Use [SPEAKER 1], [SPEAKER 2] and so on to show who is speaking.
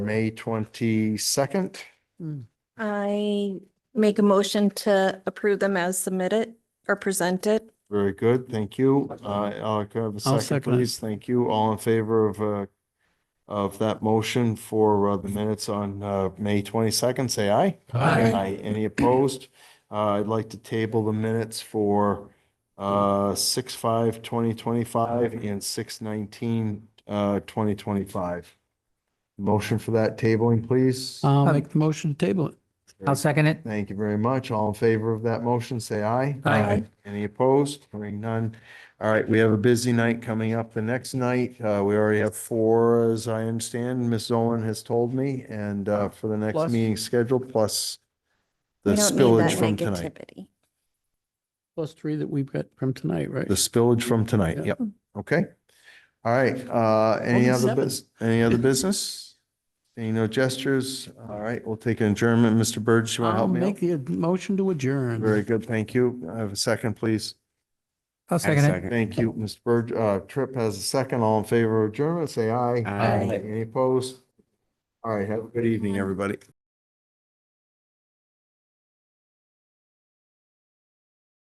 [SPEAKER 1] May twenty-second.
[SPEAKER 2] I make a motion to approve them as submitted or presented.
[SPEAKER 1] Very good, thank you. Uh, I'll have a second,
[SPEAKER 3] second it.
[SPEAKER 1] please. Thank you. All in favor of, uh, of that motion for uh, the minutes on, uh, May twenty-second, say aye.
[SPEAKER 2] Aye.
[SPEAKER 1] Any opposed? Uh, I'd like to table the minutes for, uh, six, five, twenty twenty-five and six, nineteen, uh, twenty twenty-five. Motion for that tabling, please.
[SPEAKER 3] I'll make the motion to table it.
[SPEAKER 4] I'll second it.
[SPEAKER 1] Thank you very much. All in favor of that motion, say aye.
[SPEAKER 4] Aye.
[SPEAKER 1] Any opposed? Hearing none. All right, we have a busy night coming up the next night. Uh, we already have four, as I understand, Ms. Owen has told me, and, uh, for the next
[SPEAKER 3] Plus-
[SPEAKER 1] meeting scheduled, plus the
[SPEAKER 2] We don't need
[SPEAKER 1] spillage
[SPEAKER 2] that
[SPEAKER 1] from tonight.
[SPEAKER 2] negativity.
[SPEAKER 3] Plus three that we've got from tonight, right?
[SPEAKER 1] The spillage from tonight,
[SPEAKER 3] Yeah.
[SPEAKER 1] yep, okay. All right, uh, any
[SPEAKER 3] Only
[SPEAKER 1] other
[SPEAKER 3] seven.
[SPEAKER 1] bus, any other business? Any no gestures? All right, we'll take an adjournment. Mr. Burge, you want to
[SPEAKER 3] I'll
[SPEAKER 1] help me out?
[SPEAKER 3] make the motion to adjourn.
[SPEAKER 1] Very good, thank you. I have a second, please.
[SPEAKER 4] I'll second it.
[SPEAKER 1] Thank you, Mr. Bird. Uh, Tripp has a second. All in favor of adjournment, say aye.
[SPEAKER 2] Aye.
[SPEAKER 1] Any opposed? All right, have a good evening, everybody.